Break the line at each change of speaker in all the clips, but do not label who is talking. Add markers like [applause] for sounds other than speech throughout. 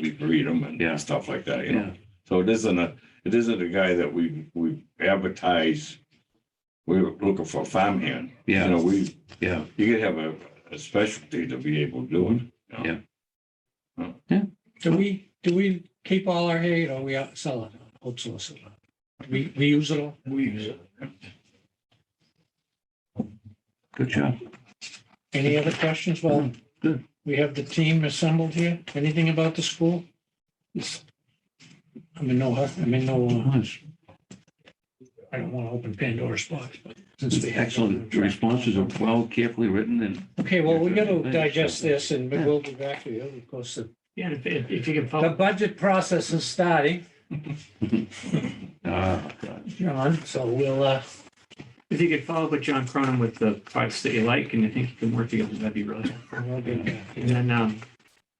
we breed them
Yeah.
and stuff like that, you know?
yeah,
So it isn't a, it isn't a guy that we, we advertise. We're looking for a farmhand. You know,
yeah,
we,
yeah.
you could have a, a specialty to be able to do it. you know?
Yeah.
Do we, do we keep all our hay or we out- sell it, outsource it? We, we use it all?
We use it.
Good job.
Any other questions? Well,
Mm-hmm. Good.
we have the team assembled here. Anything about the school? I'm in no, hu- I'm in no, uh,
Nice.
I don't want to open Pandora's box. but since we have-
Excellent. The responses are well carefully written and
Okay, well, we got to digest this and we'll be back to you, of course. the-
Yeah, if, if if you can
The
follow,
budget process is starting,
Ah, God.
John, so we'll, uh,
if you could follow up with John Cronin with the parts that you like and you think you can work together, that'd be really helpful.
we'll be back.
And then, um,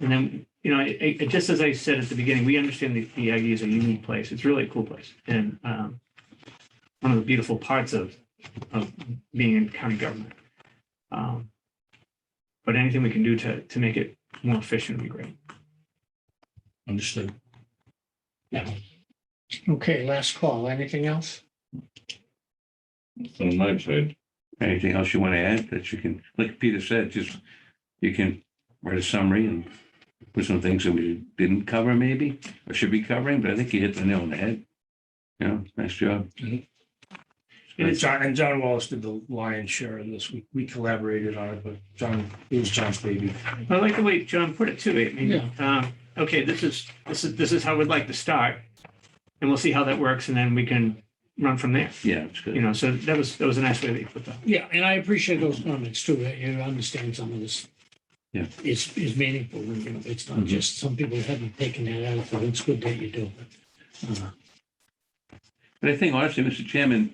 and then, you know, it, it, just as I said at the beginning, we understand that the Aggie is a unique place. It's really a cool place. And, um, one of the beautiful parts of, of being in county government. Um, but anything we can do to, to make it more efficient would be great.
Understood. Yeah. Okay, last call. Anything else?
On my side,
anything else you want to add that you can, like Peter said, just, you can write a summary and put some things that we didn't cover maybe, or should be covering, but I think you hit the nail on the head. You know, nice job.
It
And
is-
John, and John Wallace did the lion's share of this. We, we collaborated on it, but John, it was John's baby.
I like the way John put it too. I mean, um, okay, this is, this is, this is how we'd like to start. And we'll see how that works and then we can run from there,
Yeah, it's
you
good.
know, so that was, that was a nice way that you put that.
Yeah, and I appreciate those comments too. that You understand some of this.
Yeah.
It's, it's meaningful. and, you know, It's not
Mhm.
just, some people haven't taken that out of it. It's good that you do. Uh,
But I think honestly, Mr. Chairman,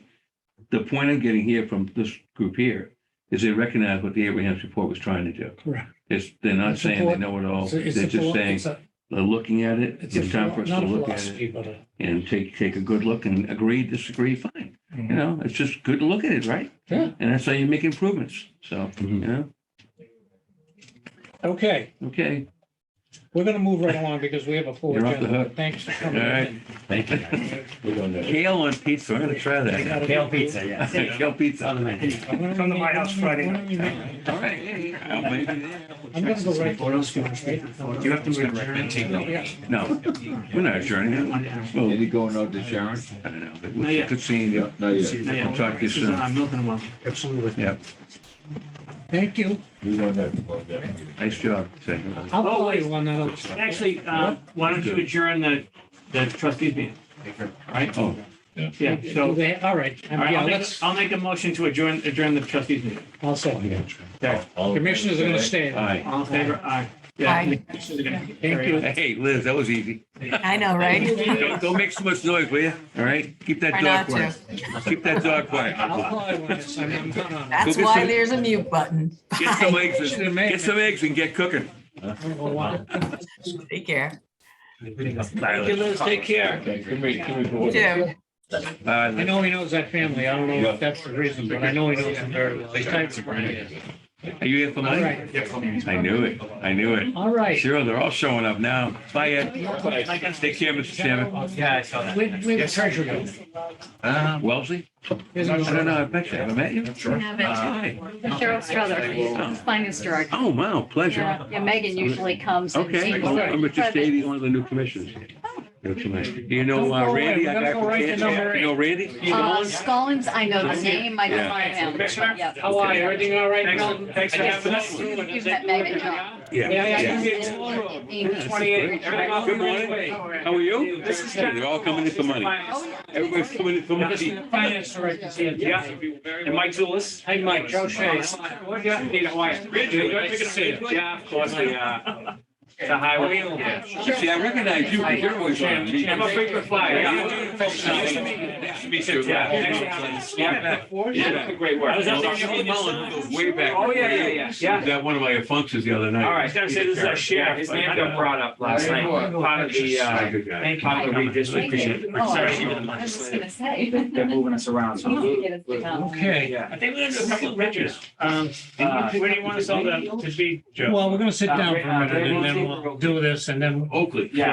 the point I'm getting here from this group here is they recognize what the Abraham's report was trying to do.
Correct.
It's, they're not
It's
saying they
important.
know it all.
It's a-
Oh, They're
it's a
just
philo-
saying,
it's a-
they're looking at it.
It's a
It's time for
philo-
us to
not a
look at it.
philosophy, but a-
and take, take a good look and agree, disagree, fine. You
Mhm.
know, it's just good to look at it, right?
Mm-hmm. Yeah.
And that's how you make improvements. So, you know,
Okay,
okay.
we're going to move right along because we have a full
You're off the
agenda.
hook.
Thanks for coming
All right.
in.
Thank you.
we're gonna.
[laughs] Kale on pizza, I'm gonna try
I
that.
gotta
Kale
go.
pizza, yeah.
[laughs] Kale pizza on the menu.
I'm gonna
Come to my
make-
house
I'm gonna-
Friday
I'm gonna make-
All right, hey, I'll maybe there.
I'm gonna go right.
What else do you want to say?
You have to adjourn.
Yeah.
No, we're not adjourning. Well,
Any going out to Sharon?
I don't know, but
Not
we
yet.
could see, you.
Not yet.
Yeah,
I'll talk to you
this is,
soon.
uh, Milton and Wilson.
Absolutely.
Thank you.
We don't have to go there.
nice job. Thank you.
I'll
Oh,
call
wait.
you on that other. side.
Actually, uh, why don't you adjourn the, the trustees meeting? Right?
Oh,
Yeah,
Do
so,
they- All right,
all
Um,
right,
yeah,
I'll make,
let's,
I'll make a motion to adjourn, adjourn the trustees meeting.
I'll say,
All-
commissioners are going to stay.
hi.
All in favor? Aye. Yeah,
Aye.
the commissioners are gonna carry
Thank you.
on.
Hey, Liz, that was easy.
I know,
[laughs]
right?
Don't, don't make so much noise, will you? All right, keep that
Try
dog
not to.
quiet. Keep that dog quiet.
I'll call you on this. I'm, I'm not on. it.
That's
Go get
why
some-
there's a mute button.
Get some
Bye.
eggs, and- get some eggs and get cooking.
I don't know why.
Take care.
Bye,
Thank you, Liz. Take care.
Okay, Can we, can we go
You too.
Bye,
I
Liz.
know he knows that family. I don't know if that's the reason, but I know he knows them very well. He's tight for it.
Are you here for
All
lunch?
right,
I knew it. I knew it.
all right. Oh,
Sure, they're all showing up now. Bye, Ed. Take care, Mr. Chairman.
Yeah, I saw that. Where, where the treasure go? Um,
Uh,
Wellesley? I don't know. I bet you. Haven't met you? Hi.
Cheryl Strother, finance director.
Oh, wow. Pleasure.
Yeah, yeah, Megan usually comes and
Okay.
sees.
Well, I'm Richard Stady, one of the new commissioners. That's nice. You know uh, Randy? I got
Don't go
from
away. We're gonna go right to number
Kansas. You know Randy?
Uh, Scollins, I know the name, I
Yeah.
don't know him, but yeah.
How are you? Everything all right?
Thanks, thanks for having us.
You've met Megan, John.
Yeah.
Yeah, yeah.
Yeah.
Amy.
Great. Good morning. How are you?
This is-
They're all coming in for money.
Oh, yeah.
Everybody's coming in for money.
Finance director's here.
Yeah. And Mike Zulus.
Hey, Mike, Joe Shea.
Yeah, of course, the, uh, the highway. Yeah.
You See, I recognize you. 'cause You're always on me.
I'm a frequent flyer. yeah.
Nice to meet you.
Yeah.
Yeah. Yeah.
Great work.
I was out there holding Mullen goes way back.
Oh, yeah, yeah, yeah, yeah.
That one of my functions the other night.
All right, I was gonna say, this is our sheriff. His name got brought up last night, part of the, uh,
Good guy.
part of the redistricting.
Oh,
Sorry,
I was just gonna say. [laughs]
They're moving us around, so.
Okay.
I think we're gonna do a couple of riches. Um, uh, where do you want us all to, to be?
Uh, Well, we're going to sit down for a minute and then we'll
we'll do this and then
Oakley.
Yeah,